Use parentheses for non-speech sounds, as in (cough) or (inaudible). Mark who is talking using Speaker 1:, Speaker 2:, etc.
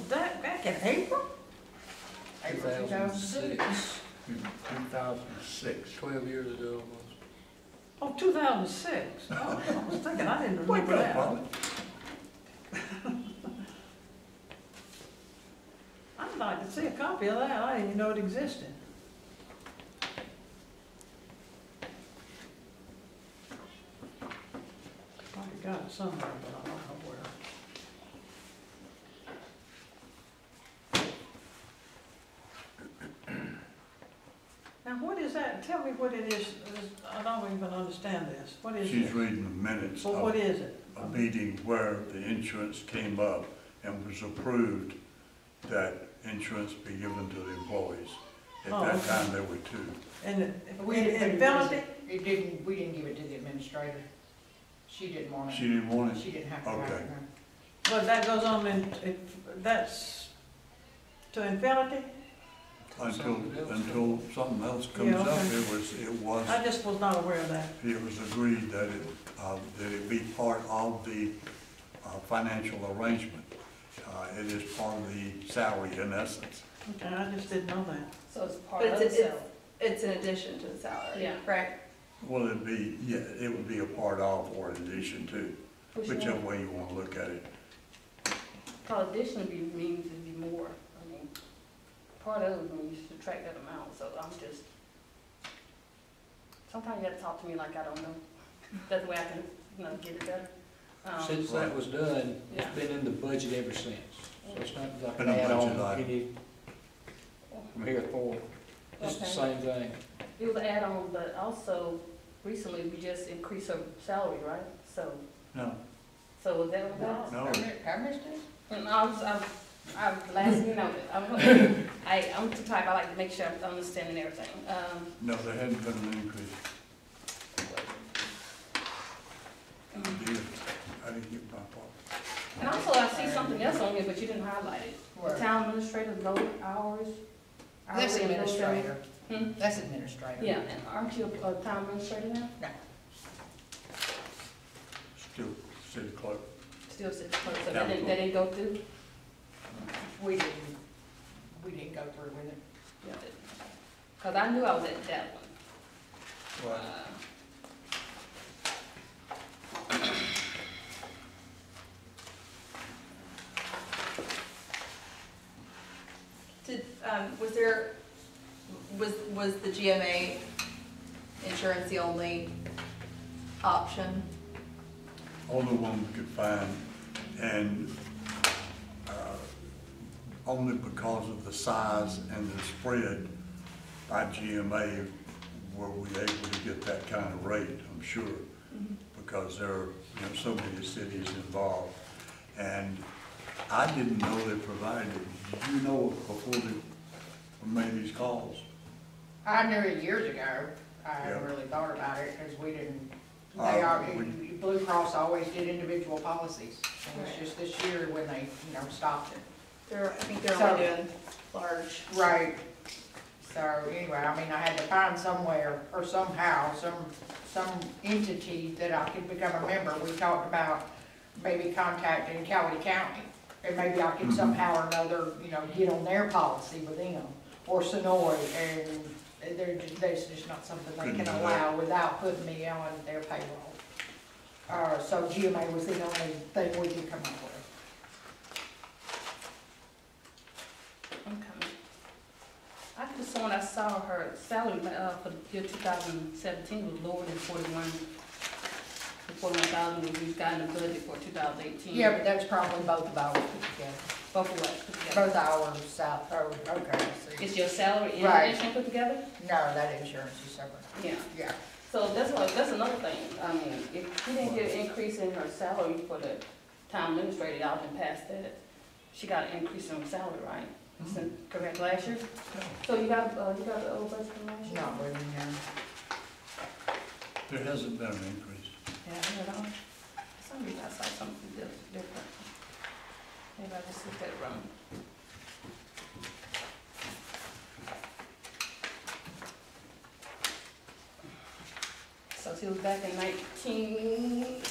Speaker 1: back in April? April two thousand six.
Speaker 2: 2006,
Speaker 3: Two thousand six.
Speaker 2: 12 years ago almost.
Speaker 1: Oh, two thousand six. Oh, I was thinking, I didn't
Speaker 3: Wake
Speaker 1: remember
Speaker 3: up,
Speaker 1: that.
Speaker 3: Paul.
Speaker 1: I'd like to see a copy of that. I didn't even know it existed. Probably got it somewhere, but I don't know where. Now, what is that? Tell me what it is. I don't even understand this. What is
Speaker 3: She's
Speaker 1: it?
Speaker 3: reading the minutes
Speaker 1: Well, what
Speaker 3: of
Speaker 1: is it?
Speaker 3: a meeting where the insurance came up and was approved that insurance be given to the employees. At
Speaker 1: Oh,
Speaker 3: that
Speaker 1: okay.
Speaker 3: time, there were two.
Speaker 1: And, it-
Speaker 4: We
Speaker 1: and-
Speaker 4: didn't put it
Speaker 1: and
Speaker 4: in.
Speaker 1: Valentine,
Speaker 4: It didn't, we didn't give it to the administrator. She didn't want
Speaker 3: She
Speaker 4: it.
Speaker 3: didn't want it.
Speaker 4: She didn't have to write
Speaker 3: Okay.
Speaker 4: it.
Speaker 1: Well, that goes on in, it- that's to infinity?
Speaker 3: Until,
Speaker 2: Something else.
Speaker 3: until something else comes
Speaker 1: Yeah,
Speaker 3: up,
Speaker 1: okay.
Speaker 3: it was, it was,
Speaker 1: I just was not aware of that.
Speaker 3: it was agreed that it, uh, that it be part of the, uh, financial arrangement. Uh, it is part of the salary in essence.
Speaker 1: Okay, I just didn't know that.
Speaker 5: So it's part
Speaker 6: But
Speaker 5: of the
Speaker 6: it's, it's,
Speaker 5: salary.
Speaker 6: it's in addition to the salary,
Speaker 5: Yeah.
Speaker 6: right?
Speaker 3: Well, it'd be, yeah, it would be a part of or in addition to, whichever way you wanna look at it.
Speaker 5: Cause additionally be- means it'd be more, I mean, part of it, when you subtract that amount, so I'm just. Sometimes you gotta talk to me like I don't know, that's the way I can, you know, get it better. Um,
Speaker 2: Since that was done,
Speaker 5: Yeah.
Speaker 2: it's been in the budget ever since. So it's not like
Speaker 3: Been
Speaker 2: an
Speaker 3: a
Speaker 2: add-on
Speaker 3: budget item.
Speaker 2: any from here forward. It's the
Speaker 5: Okay.
Speaker 2: same thing.
Speaker 5: It was an add-on, but also recently we just increased her salary, right? So,
Speaker 3: No,
Speaker 5: so was that what that was?
Speaker 3: no,
Speaker 4: I missed it?
Speaker 5: And I was, I'm, I'm last, you know, I'm, (laughs) I, I'm the type, I like to make sure I'm understanding everything. Um,
Speaker 3: no, there hadn't been an increase.
Speaker 5: Um,
Speaker 3: Dear, I didn't get my part.
Speaker 5: And also, I see something else on here, but you didn't highlight it. The
Speaker 4: Right.
Speaker 5: Town administrator, low hours. hourly
Speaker 4: That's
Speaker 5: and low salary.
Speaker 4: administrator.
Speaker 5: Hmm?
Speaker 4: That's administrator.
Speaker 5: Yeah, and aren't you a a town administrator now?
Speaker 3: Still city clerk.
Speaker 5: Still sits close, so
Speaker 3: Town
Speaker 5: that didn't, that didn't go through?
Speaker 4: We didn't, we didn't go through with it.
Speaker 5: Yeah, it- Cause I knew I was at that one. Uh,
Speaker 6: Did, um, was there, was, was the GMA insurance the only option?
Speaker 3: only one we could find, and uh, only because of the size and the spread by GMA were we able to get that kind of rate, I'm sure, because there are, you know, so many cities involved. And I didn't know they provided, it. did you know before they made these calls?
Speaker 4: I knew it years ago. I
Speaker 3: Yeah.
Speaker 4: really thought about it because we didn't,
Speaker 3: Uh,
Speaker 4: they are,
Speaker 3: we-
Speaker 4: Blue Cross always did individual policies. And it's
Speaker 6: Right.
Speaker 4: just this year when they, you know, stopped it.
Speaker 6: They're, I think they're only
Speaker 4: So-
Speaker 6: doing large.
Speaker 4: Right. So anyway, I mean, I had to find somewhere or somehow, some, some entity that I could become a member. We talked about maybe contacting Cowee County. And maybe I could
Speaker 3: Mhm.
Speaker 4: somehow or another, you know, get on their policy with them or Sonoy. And they're, ju- that's just not something they
Speaker 3: Couldn't
Speaker 4: can
Speaker 3: do that.
Speaker 4: allow without putting me on their payroll. Uh, so GMA was the only thing we could come up with.
Speaker 5: I'm coming. I could have sworn I saw her salary, uh, for the year two thousand seventeen was lower than forty-one, forty-one thousand, we've gotten a budget for two thousand eighteen.
Speaker 4: Yeah, but that's probably both of ours put together.
Speaker 5: Both of us,
Speaker 4: Both hours south, oh, okay, I
Speaker 5: Is
Speaker 4: see.
Speaker 5: your salary and
Speaker 4: Right.
Speaker 5: everything put together?
Speaker 4: No, that insurance is separate,
Speaker 5: Yeah.
Speaker 4: yeah.
Speaker 5: So that's what, that's another thing, I mean, if she didn't get an increase in her salary for the town administrator, y'all been past that, she got an increase in her salary, right?
Speaker 4: Mm-hmm.
Speaker 5: Since, correct, last year? So you got, uh, you got the old budget from last year?
Speaker 4: Not really, no.
Speaker 3: There hasn't been an increase.
Speaker 5: Yeah, I don't know. For some reason I saw something di- different. Maybe I just looked at it wrong. So she was back in nineteen